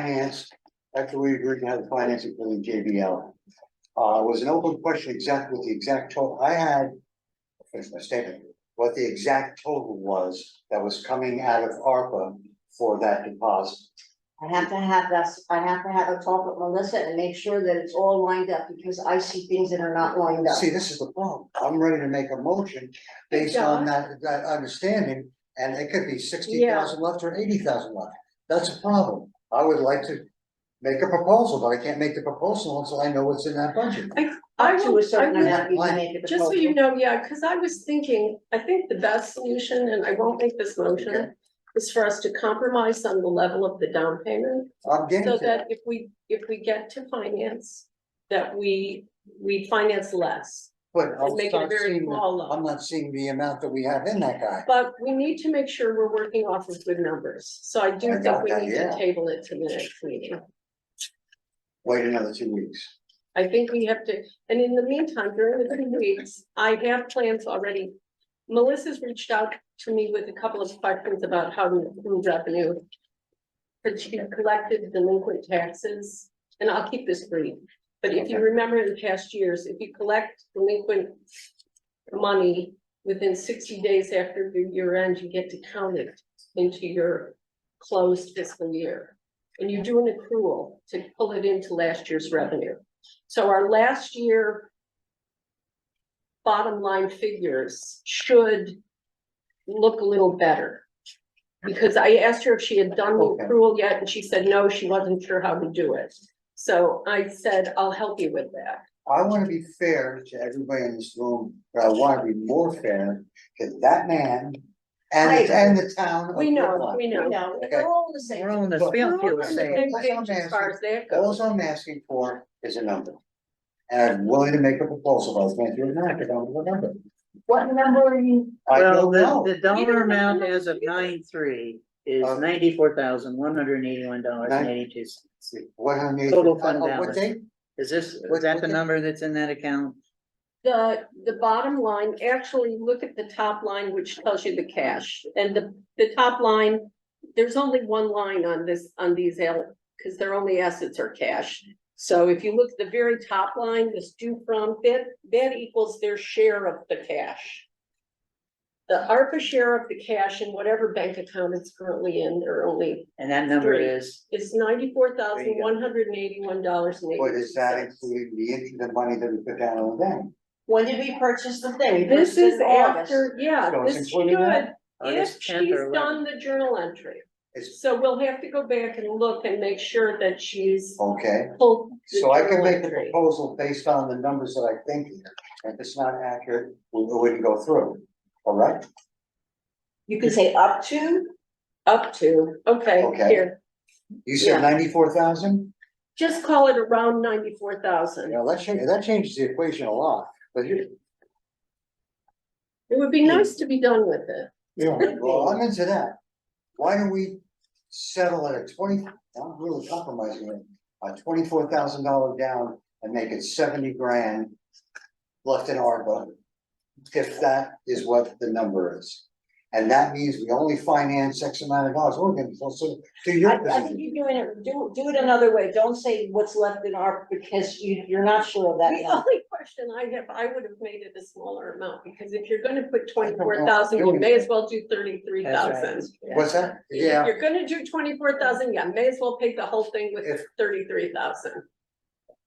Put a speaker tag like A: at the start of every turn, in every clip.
A: finance, after we agreed to have the financing for the JBL. Uh, was an open question exactly what the exact total, I had, finish my statement, what the exact total was that was coming out of ARPA for that deposit.
B: I have to have this, I have to have a talk with Melissa and make sure that it's all lined up, because I see things that are not lined up.
A: See, this is the problem, I'm ready to make a motion based on that, that understanding, and it could be sixty thousand left or eighty thousand left. That's a problem, I would like to make a proposal, but I can't make the proposal until I know what's in that budget.
C: I
B: Up to
C: will,
B: a
C: I
B: certain
C: will,
B: amount, you can make it.
C: just so you know, yeah, cause I was thinking, I think the best solution, and I won't make this
A: Okay.
C: motion. Is for us to compromise on the level of the down payment,
A: I'm getting
C: so
A: to
C: that
A: that,
C: if we, if we get to finance. That we, we finance less,
A: but
C: and
A: I'm
C: make it a
A: not
C: very
A: seeing, the-
C: small
A: I'm
C: loan,
A: not seeing the amount that we have in that guy.
C: but we need to make sure we're working off of good numbers. So I
A: I
C: do think
A: got
C: we
A: that,
C: need
A: yeah.
C: to table it to the next meeting.
A: Wait another two weeks.
C: I think we have to, and in the meantime, during the three weeks, I have plans already. Melissa's reached out to me with a couple of questions about how to improve revenue. But she collected delinquent taxes, and I'll keep this brief, but if you
A: Okay.
C: remember in past years, if you collect delinquent. Money within sixty days after your year end, you get to count it into your closed fiscal year. And you do an accrual to pull it into last year's revenue. So our last year. Bottom line figures should look a little better. Because I asked her if she had done the
A: Okay.
C: accrual yet, and she said no, she wasn't sure how to do it. So I said, I'll help you with that.
A: I wanna be fair to everybody in this room, but I wanna be more fair to that man and,
B: Right.
A: and the town of
C: We know,
A: Brookline.
C: we know.
B: No,
A: Okay.
B: we're all the same.
D: We're all in the
A: But-
D: same field,
A: We're all
D: same.
C: Same
A: That's what
C: page
A: I'm
C: as far as that goes.
A: All I'm asking for is a number. And I'm willing to make a proposal, I was going through it now, 'cause I don't remember.
B: What number are you?
A: I don't
D: Well, the,
A: know,
D: the dollar
C: don't
D: amount
C: know
D: as of
C: either.
D: nine three is
A: Uh,
D: ninety-four thousand, one hundred and eighty-one dollars and eighty-two cents.
A: what I need.
D: Total fund
A: uh, uh, What
D: balance.
A: date?
D: Is this,
A: What-
D: is that the
A: what-
D: number that's in that account?
C: The, the bottom line, actually, look at the top line, which tells you the cash, and the, the top line. There's only one line on this, on these, because their only assets are cash. So if you look at the very top line, this due from, that, that equals their share of the cash. The ARPA share of the cash in whatever bank account it's currently in, they're only,
D: And that number
C: Three.
D: is,
C: is ninety-four thousand, one hundred and eighty-one dollars and
A: What
C: eighty-two
A: is that
C: cents.
A: including the interest, the money that we put down on the bank?
B: When did we purchase the thing? We
C: This
B: purchased it
C: is
B: in August.
C: after, yeah,
A: So it's
C: this
A: including that?
C: should, If
D: August
C: she's
D: 10th or
C: done the journal entry,
A: It's,
C: so we'll have to go back and look and make sure that she's
A: okay,
C: pulled. the
A: Oh. so I can
C: journal
A: make a
C: entry.
A: proposal based on the numbers that I think here, and if it's not accurate, we we wouldn't go through, all right?
B: You could say up to,
C: Up to, okay,
A: Okay.
C: here,
A: You
C: Yeah.
A: said ninety-four thousand?
C: just call it around ninety-four
A: You
C: thousand.
A: know, that changes, that changes the equation a lot, but you,
C: It would be
A: Hmm.
C: nice to be done with it.
A: Yeah, well, I'm into that. Why don't we settle at a twenty, I'm really compromising it, a twenty-four thousand dollar down and make it seventy grand left in ARPA, if that is what the number is. And that means we only finance X amount of dollars, we're gonna, so- so, to
B: I,
A: your
B: I think
A: position,
B: you're doing it, do, do it another way, don't say what's left in our, because you, you're not sure of that
C: The
B: number.
C: only question I have, I would have made it a smaller amount, because if you're gonna put twenty-four thousand, you may as well do thirty-three thousand.
D: That's right.
A: what's that?
C: If
A: Yeah,
C: you're gonna do twenty-four thousand, yeah, may as well take the whole thing with
A: If-
C: thirty-three thousand.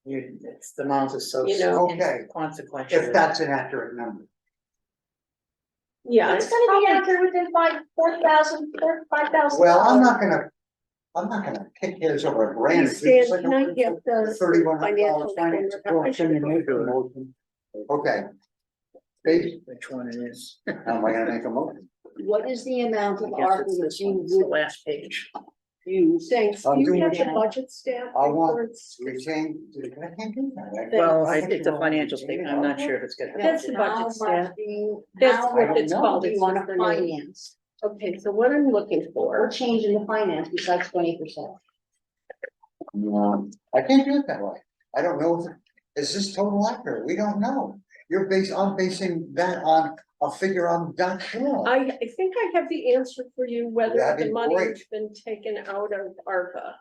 D: You, it's, the amount is so
C: You know.
A: Okay.
D: consequential.
A: if that's an accurate number.
C: Yeah.
B: It's gonna be
C: probably-
B: out there within five, four thousand, four, five thousand.
A: Well, I'm not gonna, I'm not gonna pick hairs over a brand. It's
C: Stan,
A: like a-
C: can I get the
A: Thirty-one hundred dollar
C: financial
A: finance
C: report?
A: report, can you make a motion? Okay. Based,
D: Which one it is.
A: how am I gonna make a motion?
B: What is the
D: I
B: amount of
D: guess
B: ARPA
D: it's
B: that
D: this one,
B: you
D: it's the
B: would
D: last page.
B: use?
C: Thanks.
A: I'm
C: Do
A: doing
C: you have
A: it.
C: the budget staff?
A: I want-
C: reports?
A: Retain, I can't do that.
D: Well, I,
A: think
D: it's a financial statement, I'm not sure if it's gonna.
C: That's the budget
B: How much
C: staff.
B: do you-
C: That's
B: how
A: what
B: much
A: it's
B: do
C: called,
B: You
C: it's
B: wanna
C: just the name.
B: finance,
C: Okay, so what I'm looking
B: or
C: for,
B: change in the finance besides twenty percent?
A: No, I can't do it that way. I don't know, if is this total accurate? We don't know. You're based, I'm basing that on a figure I'm not sure. of.
C: I, I think I have the answer for you, whether
A: That'd
C: the
A: be
C: money
A: great.
C: has been taken out of ARPA.